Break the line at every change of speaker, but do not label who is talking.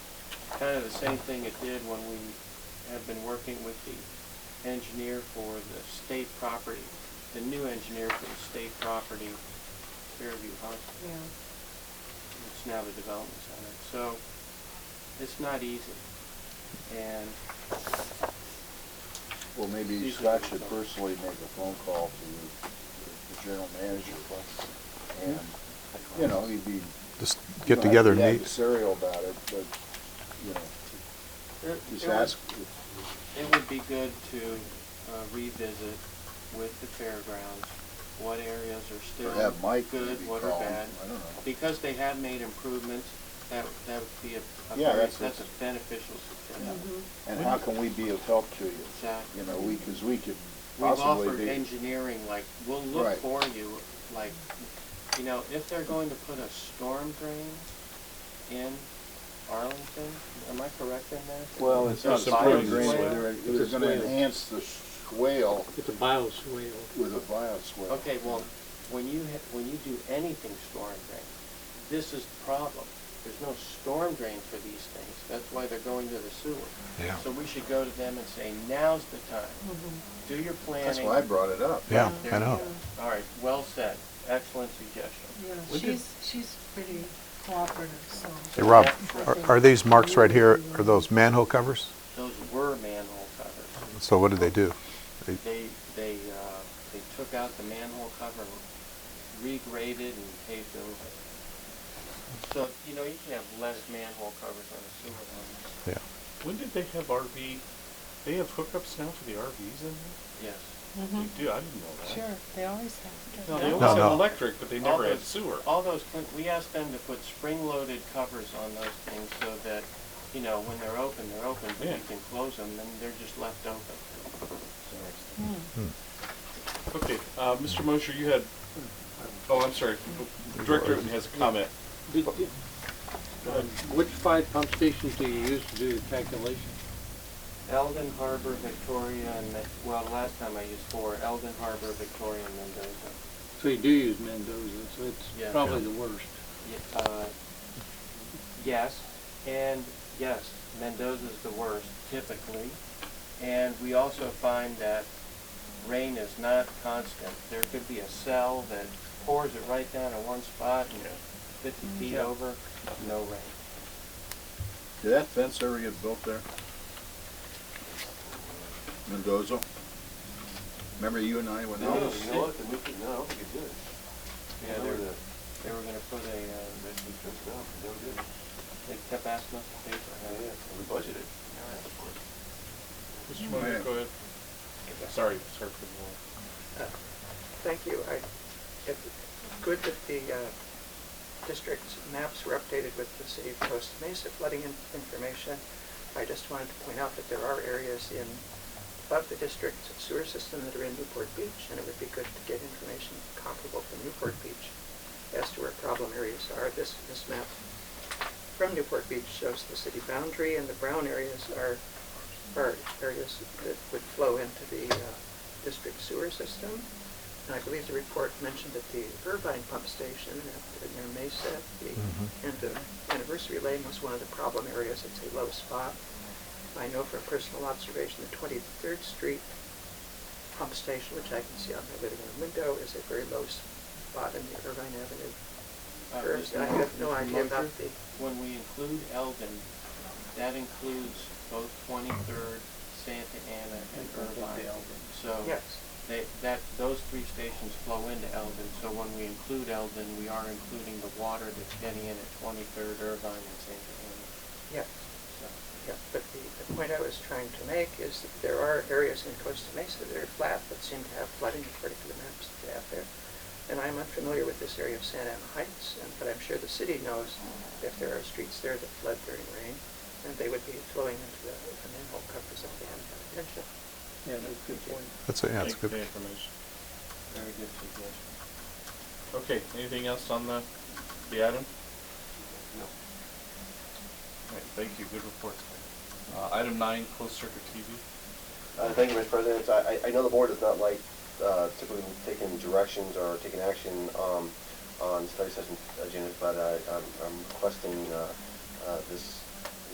kind of the same thing it did when we have been working with the engineer for the state property, the new engineer for the state property, Fairview Hospital.
Yeah.
It's now the development center. So it's not easy. And
Well, maybe
These
Scott
are-
should personally make a phone call to the general manager. And, you know, he'd be.
Just get
you know,
together
I'd
and
be
meet.
adversarial about it, but, you know,
it
just
it would-
ask,
It would be good to uh, revisit with the fairgrounds what areas are
or
still
have Mike maybe
good,
call
what
him.
are
I
bad.
don't know.
Because they have made improvements, that, that would be a, a
Yeah,
very,
that's
that's
a-
a beneficial suggestion.
And how can we be of help to you?
Mm-hmm. Exactly.
You know, we, because we could
We've
possibly
offered
be.
engineering, like, we'll look
Right.
for you, like, you know, if they're going to put a storm drain in Arlington, am I correct in that?
Well, it's not
It's a bio
bio drain,
swale.
they're,
It's
they're
a
gonna
swale.
enhance the swale
It's a bioswale.
with a bio swale.
Okay, well, when you, ha- when you do anything storm drain, this is the problem. There's no storm drain for these things, that's why they're going to the sewer.
Yeah.
So we should go to them and say, now's the time, do your planning.
That's why I brought it up.
Yeah,
There
I
you
know.
go. All right, well said, excellent suggestion.
Yeah,
We did-
she's, she's pretty cooperative, so.
Hey, Rob,
Yeah.
are, are these marks right here, are those manhole covers?
Those were manhole covers.
So what did they do? They-
They, they, uh, they took out the manhole cover, and regraded and paved over. So, you know, you can have less manhole covers on a sewer line.
Yeah,
When did they have RV? They have hookups now for the RVs in
Yes.
there?
Mhm.
They do, I didn't know that.
Sure, they always have.
No,
don't
they always
No,
had
no.
electric, but they
All
never had
those-
sewer.
All those, thing- we asked them to put spring-loaded covers on those things so that, you know, when they're open, they're open, but
Yeah.
you can close them, and they're just left open.
Hmm.
Okay, uh, Mr. Mosher, you had, oh, I'm sorry, Director Rutan has a comment.
Did- did- uh, Which five pump stations do you use to do the calculation?
Eldon Harbor, Victoria, and, Me- well, last time I used four, Eldon Harbor, Victoria, and Mendoza.
So you do use Mendoza, so
Yeah.
it's probably the worst.
Ye- uh, Yes, and yes, Mendoza's the worst typically. And we also find that rain is not constant. There could be a cell that pours it right down in one spot and fifty feet over, no rain.
Did that fence ever get built there? Mendoza? Remember you and I went out?
you know what, we could, no, we could do it. Yeah, they were, they were gonna put a, uh, they kept asking us to pay for it.
We budgeted.
Mr. Mosher, go ahead. Sorry, sorry for the long.
Thank you. I, it's good that the uh, district's maps were updated with the city of Costa Mesa flooding in- information. I just wanted to point out that there are areas in, above the district's sewer system that are in Newport Beach, and it would be good to get information comparable from Newport Beach as to where problem areas are. This, this map from Newport Beach shows the city boundary, and the brown areas are, are areas that would flow into the uh, district sewer system. And I believe the report mentioned that the Irvine pump station at- near Mesa, the end of Anniversary Lane was one of the problem areas. It's a low spot. I know from personal observation, the 23rd Street pump station, which I can see out my living room window, is a very low spot in the Irvine Avenue
Uh,
curves.
Mr.
I have no
Mosher,
idea about
Mosher?
the
When we include Eldon, that includes both 23rd, Santa Ana, and Irvine. So
Yes.
they, that, those three stations flow into Eldon, so when we include Eldon, we are including the water that's getting in at 23rd, Irvine, and Santa Ana.
Yeah,
So,
yeah, but the, the point I was trying to make is that there are areas in Costa Mesa that are flat that seem to have flooding according to the maps that they have there. And I'm unfamiliar with this area of Santa Ana Heights, and, but I'm sure the city knows if there are streets there that flood during rain, and they would be flowing into the the manhole covers if they hadn't had attention.
Yeah, that's a good point.
that's, a- yeah, that's
Thank you for the
good.
information.
Very good suggestion.
Okay, anything else on the, the item?
No.
All right, thank you, good report. Uh, item nine, closed circuit TV.
Uh, Thank you, Mr. President. I, I- I know the board does not like uh, typically taking directions or taking action um, on study session agendas, but I- I'm I'm requesting uh, uh, this